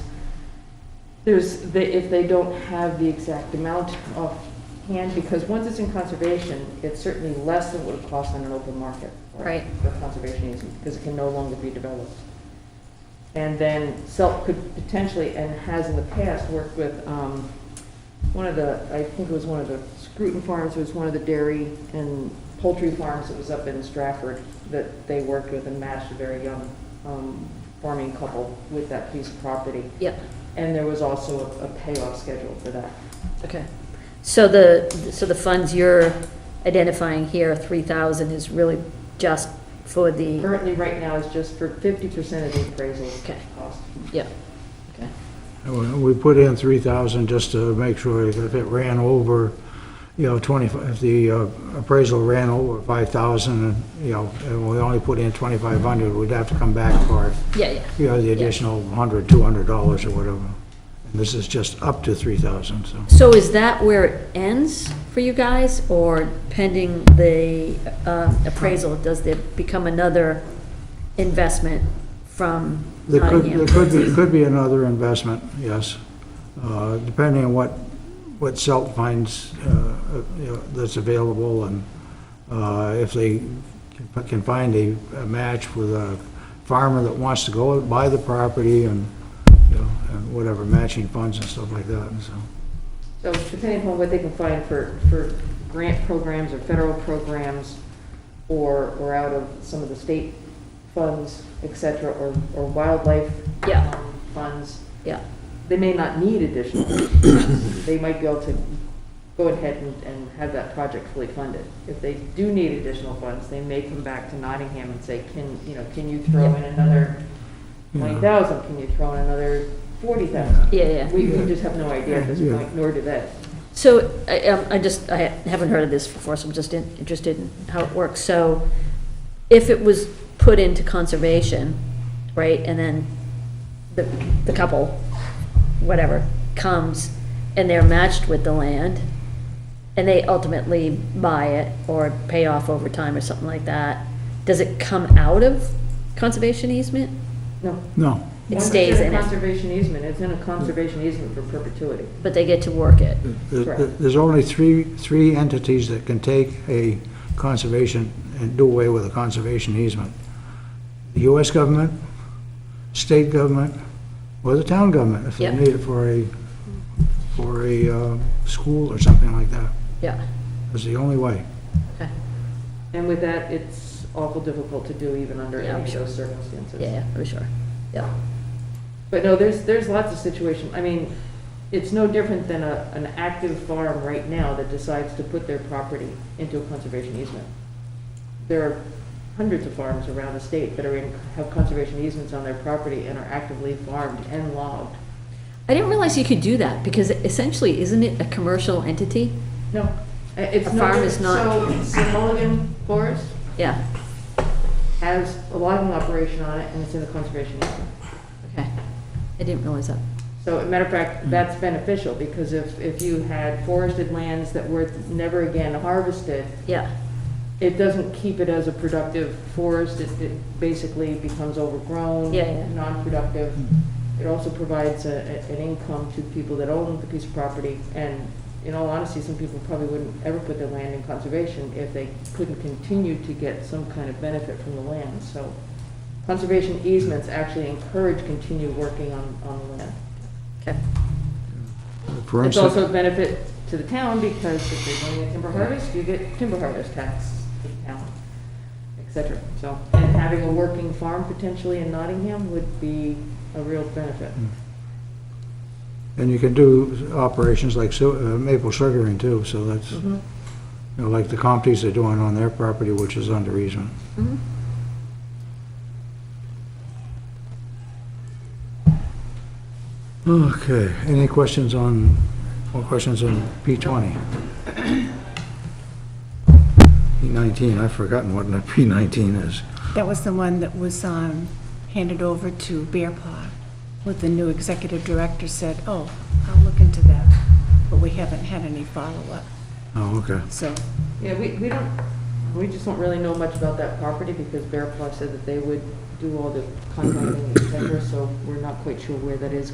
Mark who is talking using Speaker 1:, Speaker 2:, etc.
Speaker 1: There's, the- if they don't have the exact amount of hand, because once it's in conservation, it's certainly less than what it costs on an open market. for-
Speaker 2: Right.
Speaker 1: For conservation easement, because it can no longer be developed. And then SELT could potentially, and has in the past, worked with, um, one of the, I think it was one of the Scruton farms, it was one of the dairy and poultry farms that was up in Stratford that they worked with and matched a very young, um, farming couple with that piece of property.
Speaker 2: Yep,
Speaker 1: And there was also a- a payoff schedule for that.
Speaker 2: okay. So the, so the funds you're identifying here, three thousand, is really just for the,
Speaker 1: Currently, right now, it's just for fifty percent of the appraisal
Speaker 2: Okay.
Speaker 1: cost.
Speaker 2: yeah, okay,
Speaker 3: And We we put in 3,000 just to make sure if it ran over, you know, 25, if the uh, appraisal ran over 5,000, and, you know, and we only put in 2,500, we'd have to come back for,
Speaker 2: yeah, yeah.
Speaker 3: you know, the additional 100, 200 dollars or whatever. And this is just up to 3,000, so.
Speaker 2: So is that where it ends for you guys, or pending the uh, appraisal, does there become another investment from
Speaker 3: There could,
Speaker 2: Nottingham?
Speaker 3: there could be, could be another investment, yes, Uh, depending on what, what SELT finds, uh, uh, you know, that's available, and uh, if they can- can find a a match with a farmer that wants to go buy the property and, you know, and whatever, matching funds and stuff like that, and so.
Speaker 1: So depending upon what they can find for, for grant programs or federal programs, or, or out of some of the state funds, et cetera, or, or wildlife
Speaker 2: Yeah.
Speaker 1: um, funds,
Speaker 2: Yeah,
Speaker 1: they may not need additional. They might be able to go ahead and, and have that project fully funded. If they do need additional funds, they may come back to Nottingham and say, can, you know, can you throw in another
Speaker 3: Yeah.
Speaker 1: twenty thousand? Can you throw in another forty thousand?
Speaker 2: yeah, yeah.
Speaker 1: We, we just have no idea at this
Speaker 3: Yeah.
Speaker 1: point, nor do they.
Speaker 2: So I, um, I just, I haven't heard of this before, so I'm just in- interested in how it works. So if it was put into conservation, right, and then the, the couple, whatever, comes and they're matched with the land and they ultimately buy it or pay off over time or something like that, does it come out of conservation easement?
Speaker 1: No.
Speaker 3: No,
Speaker 2: It
Speaker 1: Once it's
Speaker 2: stays in
Speaker 1: a
Speaker 2: it,
Speaker 1: Conservation easement, it's in a conservation easement for perpetuity.
Speaker 2: but they get to work it.
Speaker 1: Hmm.
Speaker 3: There-
Speaker 1: Correct.
Speaker 3: there's only three, three entities that can take a conservation and do away with a conservation easement. The US government, state government, or the town government, if they
Speaker 2: Yep.
Speaker 3: need it for a, for a uh, school or something like that.
Speaker 2: Yeah,
Speaker 3: That's the only way.
Speaker 2: okay,
Speaker 1: And with that, it's awful difficult to do even under
Speaker 2: Yeah, I'm
Speaker 1: any of
Speaker 2: sure.
Speaker 1: those circumstances.
Speaker 2: yeah, yeah, I'm sure, yeah.
Speaker 1: But no, there's, there's lots of situations, I mean, it's no different than a, an active farm right now that decides to put their property into a conservation easement. There are hundreds of farms around the state that are in, have conservation easements on their property and are actively farmed and logged.
Speaker 2: I didn't realize you could do that, because essentially, isn't it a commercial entity?
Speaker 1: No, i- it's
Speaker 2: A
Speaker 1: no
Speaker 2: farm is
Speaker 1: different. So, so Mulligan Forest
Speaker 2: Yeah,
Speaker 1: has a logging operation on it and it's in the conservation easement.
Speaker 2: okay. I didn't realize that.
Speaker 1: So, as a matter of fact, that's beneficial, because if, if you had forested lands that were never again harvested,
Speaker 2: Yeah,
Speaker 1: it doesn't keep it as a productive forest, it, it basically becomes overgrown.
Speaker 2: Yeah, yeah.
Speaker 1: Non-productive. It also provides a, a- an income to people that own the piece of property, and in all honesty, some people probably wouldn't ever put their land in conservation if they couldn't continue to get some kind of benefit from the land, so. Conservation easements actually encourage continued working on, on the land.
Speaker 2: okay,
Speaker 3: For
Speaker 1: It's
Speaker 3: instance,
Speaker 1: also a benefit to the town because if you're doing a timber harvest, you get timber harvest tax to the town, et cetera. So, and having a working farm potentially in Nottingham would be a real benefit.
Speaker 3: and you can do operations like su- uh, maple sugaring too, so that's, you know, like the Compties are doing on their property, which is under easement. Okay, any questions on, more questions on P20? P19, I've forgotten what P19 is.
Speaker 4: That was the one that was um, handed over to Bear Paw, what the new executive director said, oh, I'll look into that, but we haven't had any follow-up,
Speaker 3: Oh, okay.
Speaker 4: so,
Speaker 1: Yeah, we, we don't, we just don't really know much about that property because Bear Paw said that they would do all the contracting, et cetera, so we're not quite sure where that is